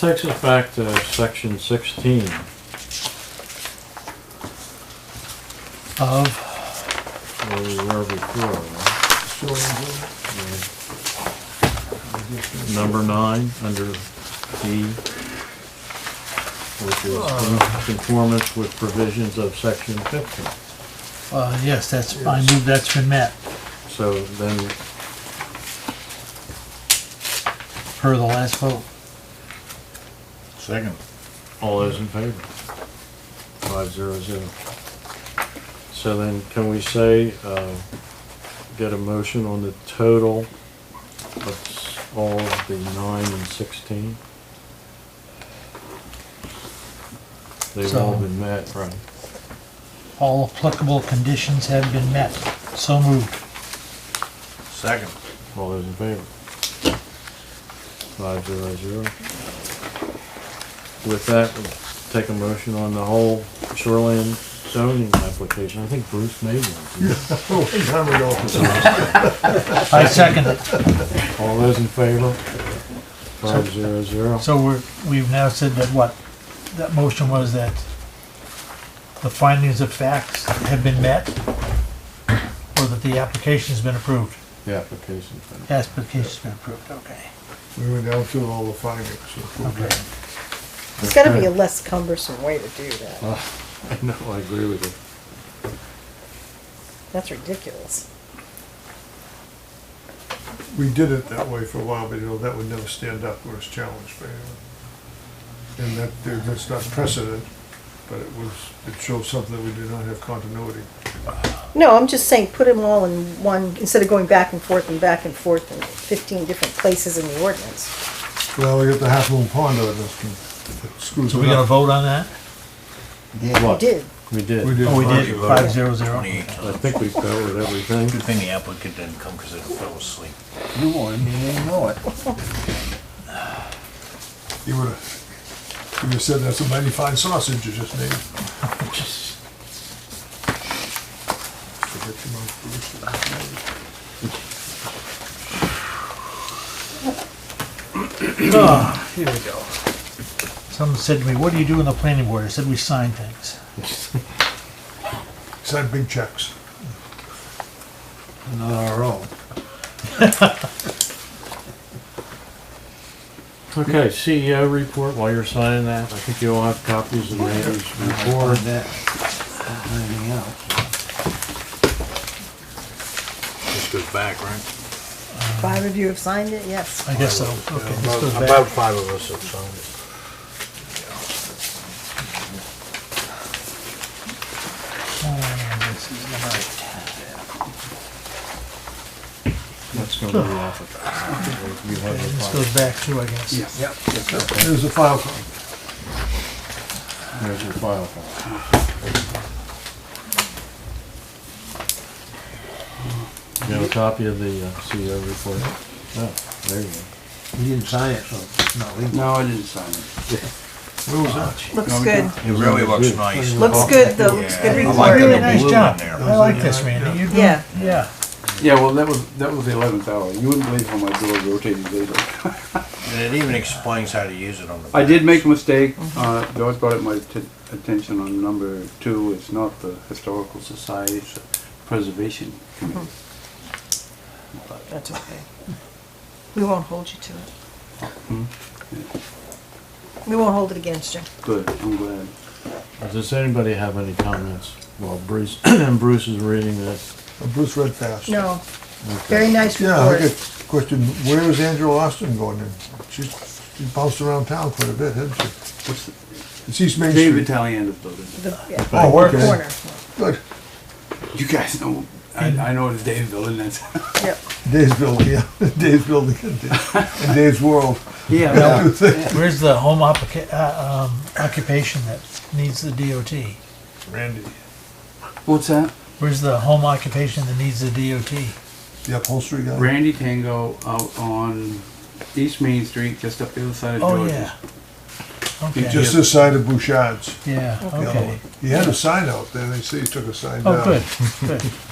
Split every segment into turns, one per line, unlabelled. Takes us back to section sixteen.
of,
where we were before. right? Number nine, under D, which is conformance with provisions of section fifteen.
uh, yes, that's, I move that's been met
So then,
per the last vote.
Second.
all those in favor? Five zero zero. So then, can we say, uh, get a motion on the total of s- all of the nine and sixteen? They've all
So-
been met, right?
All applicable conditions have been met. So moved.
Second.
All those in favor? Five zero zero. With that, we'll take a motion on the whole shoreline zoning application. I think Bruce made one.
Oh, time we go.
I second it.
All those in favor? Five zero zero.
So we're, we've now said that what, that motion was that the findings of facts have been met? Or that the application's been approved?
The application's been.
Application's been approved, okay.
We went down through all the findings.
Okay.
There's gotta be a less cumbersome way to do that.
I know, I agree with you.
That's ridiculous.
We did it that way for a while, but you know, that would never stand up when it's challenged by anyone. And that, that's not precedent, but it was, it shows something that we did not have continuity.
No, I'm just saying, put them all in one, instead of going back and forth and back and forth in fifteen different places in the ordinance.
Well, we got the Half Moon Pond ordinance, and it screws
So we
it
gotta
up.
vote on that?
You
What?
did.
We did.
We did.
Oh, we did,
vote.
five zero zero.
I think we covered everything.
Good thing the applicant didn't come because it fell asleep.
You won, you didn't know it.
You would've, you would've said that's a mighty fine sausage you just made. Forget your mouth, Bruce.
Ah, here we go. Someone said to me, what do you do in the planning board? I said, we sign things.
Sign big checks.
Not our own.
Okay, CEO report, while you're signing that, I think you all have copies of Randy's
Or
report.
that, or anything else.
This goes back, right?
Five of you have signed it, yes.
I guess so. Okay, this goes
About about
back.
five of us have signed it.
Oh, this is all right.
That's gonna be off of. You have the
This
file.
goes back too, I guess.
Yep.
There's a file copy.
There's your file file. You have a copy of the uh, CEO report? Oh, there you go.
You didn't sign it, so it's not legal.
No, I didn't sign it.
Where was that?
Looks good.
It really looks nice.
Looks good, though, looks good
I like
Really
the
report.
nice
blue in
job.
there.
I like this, Randy. You're doing-
Yeah.
Yeah.
Yeah, well, that was, that was the eleventh hour. You wouldn't believe how my door rotated later.
And it even explains how to use it on the.
I did make a mistake. Uh, George brought it my atten- attention on number two. It's not the Historical Society, it's the Preservation Committee.
That's okay. We won't hold you to it. We won't hold it against you.
Good, I'm glad.
Does anybody have any comments while Bruce, Bruce is reading this?
Bruce read fast.
No, very nice
Yeah, I
report.
get a question, where is Angela Austin going in? She's, she bounced around town quite a bit, hasn't she?
What's the,
It's East Main
David
Street.
Taliando's building.
The yeah,
Oh,
the
okay.
Corner,
Good,
You guys know, I, I know it's Dave's building, that's.
yep.
Dave's building, yeah, Dave's building, and Dave- and Dave's world.
Yeah.
Where's the home occupa- uh, um, occupation that needs the DOT?
Randy.
What's that?
Where's the home occupation that needs the DOT?
The upholstery guy?
Randy Tango out on East Main Street, just up the other side of
Oh,
George's.
yeah. Okay,
Just this side of Bouchard's.
yeah,
the other
okay.
one. He had a sign out there, they say he took a sign down.
Oh, good,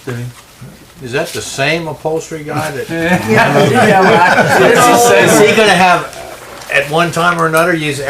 good.
Is that the same upholstery guy that?
Yeah, well, I-
Is he gonna have at one time or another use